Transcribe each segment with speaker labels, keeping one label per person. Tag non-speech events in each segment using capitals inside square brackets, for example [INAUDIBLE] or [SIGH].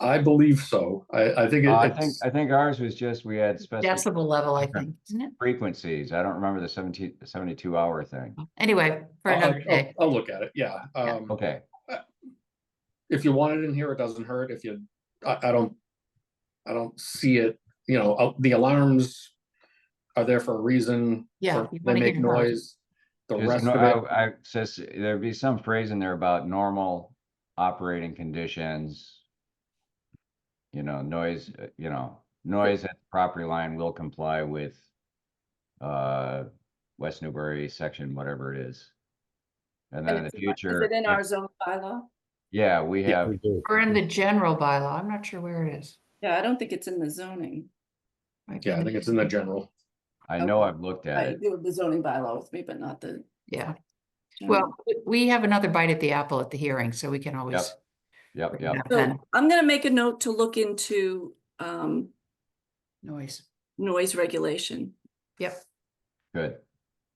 Speaker 1: I believe so. I, I think it-
Speaker 2: Uh, I think,
Speaker 1: it's,
Speaker 2: I think ours was just, we had special
Speaker 3: decibel level, I think, isn't it?
Speaker 2: frequencies. I don't remember the 17 72 hour thing.
Speaker 3: Anyway, [LAUGHS] for
Speaker 1: I'll-
Speaker 3: another
Speaker 1: I'll,
Speaker 3: day.
Speaker 1: I'll look at it, yeah. Um,
Speaker 2: Okay,
Speaker 1: if you want it in here, it doesn't hurt. If you, I, I don't, I don't see it, you know, uh, the alarms are there for a reason.
Speaker 3: Yeah,
Speaker 1: for- They
Speaker 3: you wanna
Speaker 1: make
Speaker 3: hear them.
Speaker 1: noise. The
Speaker 2: Just
Speaker 1: rest
Speaker 2: no-
Speaker 1: of it,
Speaker 2: I, I says, there'd be some phrase in there about normal operating conditions. You know, noise, uh, you know, noise at the property line will comply with. Uh, West Newbury section, whatever it is. And then in the
Speaker 4: And it's in our-
Speaker 2: future,
Speaker 4: Is it in
Speaker 2: if-
Speaker 4: our zone bylaw?
Speaker 2: yeah, we
Speaker 5: Yeah,
Speaker 2: have,
Speaker 5: we do.
Speaker 3: Or in the general bylaw, I'm not sure where it is.
Speaker 4: Yeah, I don't think it's in the zoning.
Speaker 1: yeah, I think it's in the general.
Speaker 2: I know
Speaker 4: okay.
Speaker 2: I've looked at
Speaker 4: I
Speaker 2: it.
Speaker 4: do have the zoning bylaw with me, but not the.
Speaker 3: Yeah,
Speaker 4: general.
Speaker 3: well, w- we have another bite at the apple at the hearing, so we can always.
Speaker 2: Yep,
Speaker 3: bring it
Speaker 2: yep.
Speaker 3: up
Speaker 4: So
Speaker 3: then.
Speaker 4: I'm gonna make a note to look into um
Speaker 3: Noise,
Speaker 4: noise regulation.
Speaker 3: yep,
Speaker 2: Good.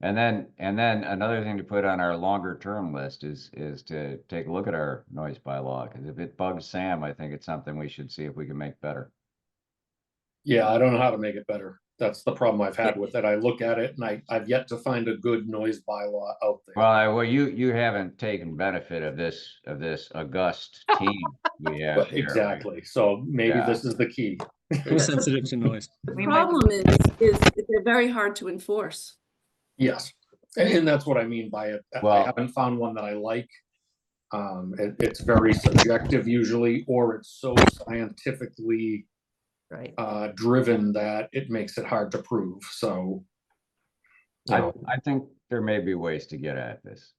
Speaker 2: And then, and then another thing to put on our longer term list is, is to take a look at our noise bylaw, because if it bugs Sam, I think it's something we should see if we can make better.
Speaker 1: Yeah, I don't know how to make it better. That's the problem I've had with it. I look at it and I, I've yet to find a good noise bylaw out there.
Speaker 2: Well, I, well, you, you haven't taken benefit of this, of this august team we have
Speaker 1: But
Speaker 2: here.
Speaker 1: Exactly, so maybe
Speaker 2: Yeah.
Speaker 1: this is the key.
Speaker 5: We're sensitive to noise.
Speaker 4: The
Speaker 3: We might-
Speaker 4: problem is, is that they're very hard to enforce.
Speaker 1: Yes, and, and that's what I mean by it. I- I
Speaker 2: Well-
Speaker 1: haven't found one that I like. Um, it, it's very subjective usually, or it's so scientifically,
Speaker 3: right.
Speaker 1: uh, driven that it makes it hard to prove, so. You
Speaker 2: I,
Speaker 1: know,
Speaker 2: I think there may be ways to get at this.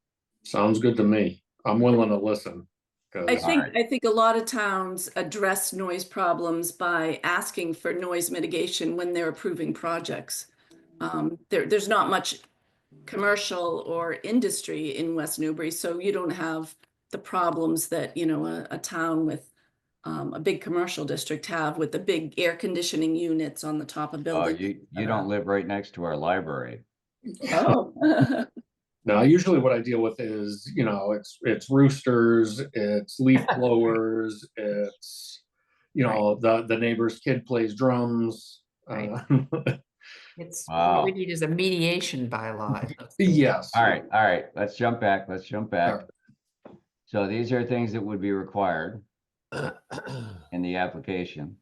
Speaker 1: sounds good to me. I'm willing to listen. 'cause-
Speaker 4: I think,
Speaker 2: Alright.
Speaker 4: I think a lot of towns address noise problems by asking for noise mitigation when they're approving projects. Um, there, there's not much commercial or industry in West Newbury, so you don't have the problems that, you know, a, a town with um, a big commercial district have with the big air conditioning units on the top of
Speaker 2: Oh,
Speaker 4: buildings.
Speaker 2: you, you don't live right next to our library.
Speaker 4: [LAUGHS] Oh.
Speaker 1: Now, usually what I deal with is, you know, it's, it's roosters, it's
Speaker 4: [LAUGHS]
Speaker 1: leaf blowers, it's, you know, the, the neighbor's kid plays drums.
Speaker 3: Right.
Speaker 1: uh, [LAUGHS]
Speaker 3: It's,
Speaker 2: Wow.
Speaker 3: what we need is a
Speaker 1: [LAUGHS]
Speaker 3: mediation bylaw.
Speaker 1: Yes.
Speaker 2: All right, all right, let's jump back, let's jump back.
Speaker 1: Alright.
Speaker 2: So these are things that would be required
Speaker 4: [CLEARS THROAT]
Speaker 2: in the application.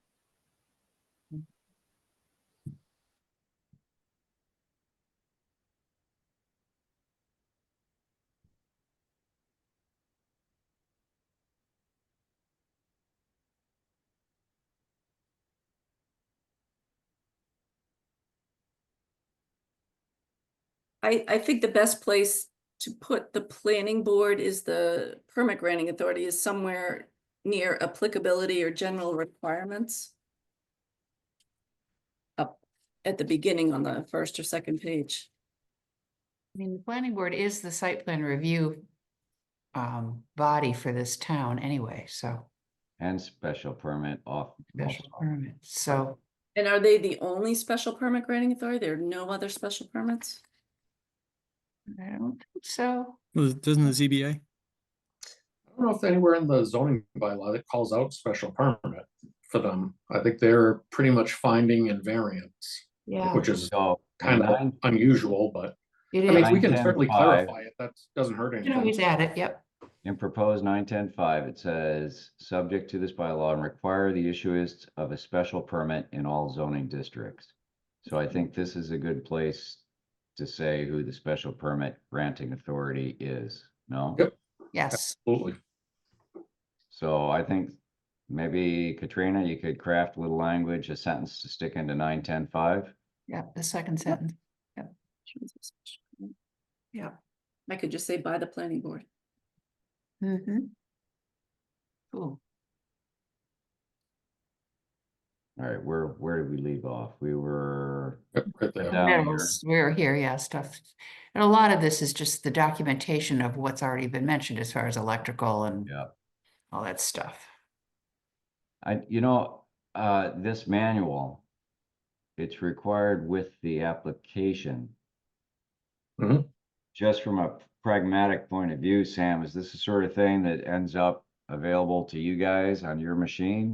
Speaker 4: I, I think the best place to put the planning board is the permit granting authority is somewhere near applicability or general requirements. Up at the beginning on the first or second page.
Speaker 3: I mean, the planning board is the site plan review um, body for this town anyway, so
Speaker 2: And special permit off.
Speaker 3: special
Speaker 2: also.
Speaker 3: permit, so
Speaker 4: And are they the only special permit granting authority? There are no other special permits?
Speaker 3: I don't think so.
Speaker 5: Well, Doesn't the ZBA?
Speaker 1: I don't know if anywhere in the zoning bylaw that calls out special permit for them. I think they're pretty much finding invariance,
Speaker 3: Yeah,
Speaker 1: which is
Speaker 2: So.
Speaker 1: kind of
Speaker 2: nine-
Speaker 1: unusual, but
Speaker 3: it
Speaker 1: I mean,
Speaker 3: is.
Speaker 1: we can
Speaker 2: 910,
Speaker 1: certainly
Speaker 2: five.
Speaker 1: clarify it. That doesn't hurt
Speaker 3: You can always
Speaker 1: anything.
Speaker 3: add it, yep.
Speaker 2: In proposed nine ten five, it says, subject to this bylaw and require the issuance of a special permit in all zoning districts. So I think this is a good place to say who the special permit granting authority is, no?
Speaker 1: Yep.
Speaker 3: Yes,
Speaker 1: Absolutely.
Speaker 2: So I think maybe Katrina, you could craft with language, a sentence to stick into nine ten five.
Speaker 3: yeah, the second sentence, yeah.
Speaker 4: I could just say by the planning board.
Speaker 3: Mm-hmm. Cool.
Speaker 2: All right, where, where did we leave off? We were.
Speaker 1: Yep, right there.
Speaker 2: down here.
Speaker 3: Metals, We're here, yeah, stuff. And a lot of this is just the documentation of what's already been mentioned as far as electrical and
Speaker 2: Yeah.
Speaker 3: all that stuff.
Speaker 2: I, you know, uh, this manual, it's required with the application.
Speaker 1: Mhm.
Speaker 2: Just from a pragmatic point of view, Sam, is this the sort of thing that ends up available to you guys on your machine?